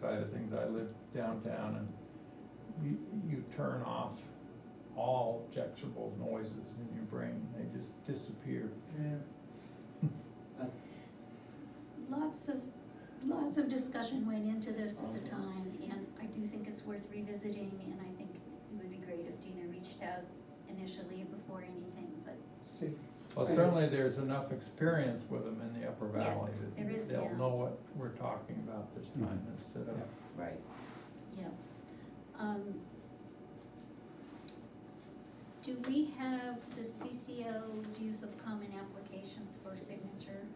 side of things, I live downtown and you, you turn off all objectionable noises in your brain, they just disappear. Lots of, lots of discussion went into this at the time, and I do think it's worth revisiting, and I think it would be great if Dina reached out initially before anything, but See. Well, certainly there's enough experience with them in the upper Yes, valley there that is, they'll yeah. know what we're talking about this time instead of. Right. Yeah. Um, Do we have the CCL's use of common applications for signature?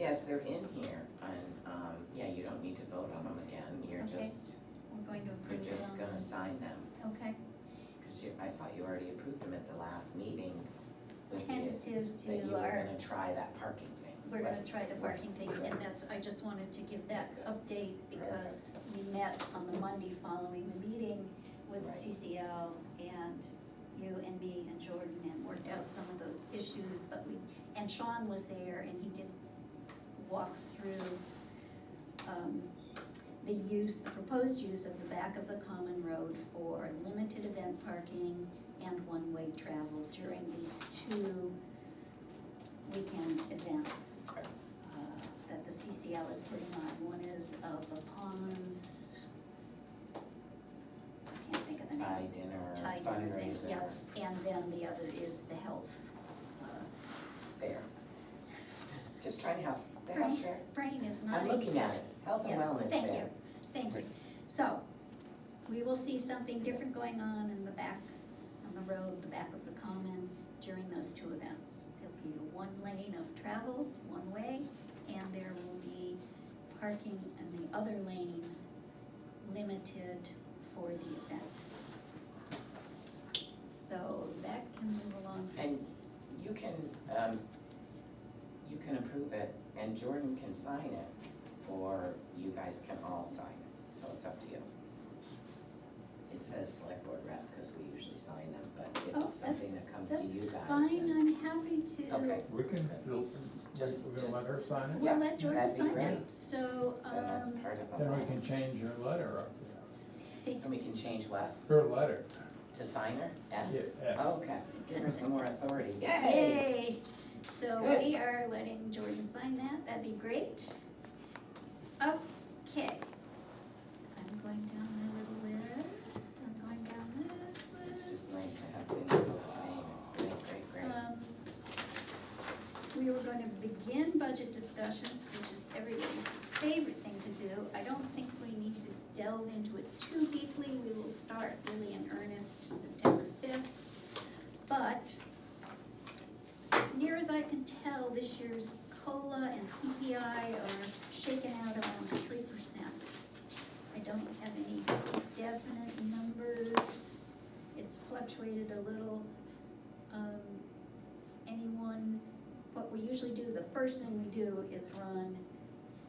Yes, they're in here, and, um, yeah, you don't need to vote on them again, you're Okay. just, We're going to you're approve just them? gonna sign them, Okay, cause you, I thought you already approved them at the last meeting. with the- tentative That you to were our, gonna try that parking thing. we're gonna try the parking thing, and Right. that's, I just wanted to give that update because we met on the Monday following the meeting with Right. CCL and you and me and Jordan and worked out some of those issues, but we, and Sean was there and he did walk through um, the use, the proposed use of the back of the common road for limited event parking and one-way travel during these two weekend events uh, that the CCL is putting on. One is of the Palms, I can't think of the name. Tie dinner, Thai dinner thing, fundraiser, yeah. And then the other is the health, uh, there. Just try to help, the Right. health fair, brain is not. I'm looking at it, health and Yes, wellness thank there. you. Thank you. Right. So, we will see something different going on in the back, on the road, the back of the common during those two events. There'll be one lane of travel, one way, and there will be parking in the other lane limited for the event. So that can move along. for s- You can, um, you can approve it, and Jordan can sign it, or you guys can all sign it, so it's up to you. It says select board rep, because we usually sign them, but if Oh, it's something that's- that comes to you That's guys, fine, then, I'm happy to. Okay. We can, we're Just- gonna let her just- sign it, We'll Yeah, let Jordan that'd be sign great. it, so, then that's um, part of then we them. can change her letter up there. And we can change what, Her letter, to signer, yeah, S? yeah. Okay, give her some more authority, yay! Yay, so we are letting Jordan sign that, that'd be great. Okay. I'm going down my little list, I'm going down this It's list. just nice to have things all the same, it's great, great, great. Um, We were gonna begin budget discussions, which is everybody's favorite thing to do. I don't think we need to delve into it too deeply. We will start really in earnest September fifth. But as near as I can tell, this year's COLA and CPI are shaken out around three percent. I don't have any definite numbers. It's fluctuated a little um, anyone, what we usually do, the first thing we do is run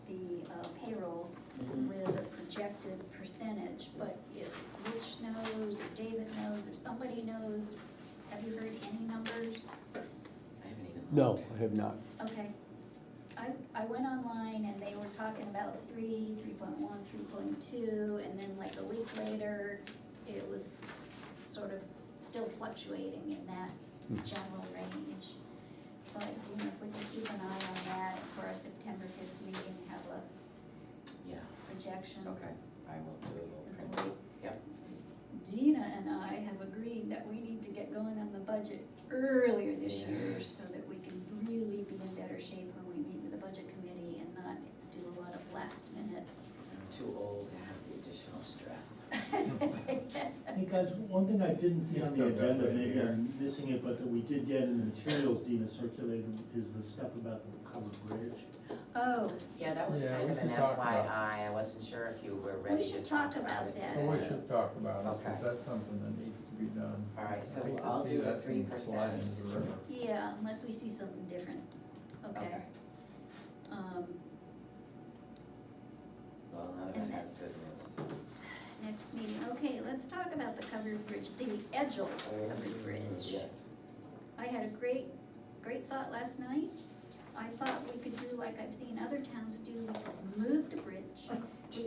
the uh, payroll Mhm. with a projected percentage, but if Rich knows, or David knows, or somebody knows, have you heard any numbers? I haven't even looked. No, I have not. Okay. I, I went online and they were talking about three, three point one, three point two, and then like a week later, it was sort of still fluctuating in that Hmm. general range. But, you know, if we can keep an eye on that for our September fifth meeting, have a Yeah, projection. okay, I will do a little That's print. all right. Yep. Dina and I have agreed that we need to get going on the budget earlier this year Yes. so that we can really be in better shape when we meet with the budget committee and not do a lot of last minute. I'm too old to have the additional stress. Hey guys, one thing I didn't see You on still the got agenda, that maybe here. I'm missing it, but that we did get in the materials Dina circulated, is the stuff about the covered bridge. Oh, Yeah, that was Yeah, kind we of an should talk about it. FYI, I wasn't sure if you were ready to should talk talk about about it. that. Well, Oh, we today. should talk about it, because Okay. that's something that needs to be done. All right, so I hate to I'll see do the that three thing slide percent. into the river. yeah, unless we see something different. Okay. Um, Well, none of And it has good news. next meeting, okay, let's talk about the covered bridge, the Edgel Mm, covered bridge. Yes. I had a great, great thought last night. I thought we could do like I've seen other towns do, we could move the bridge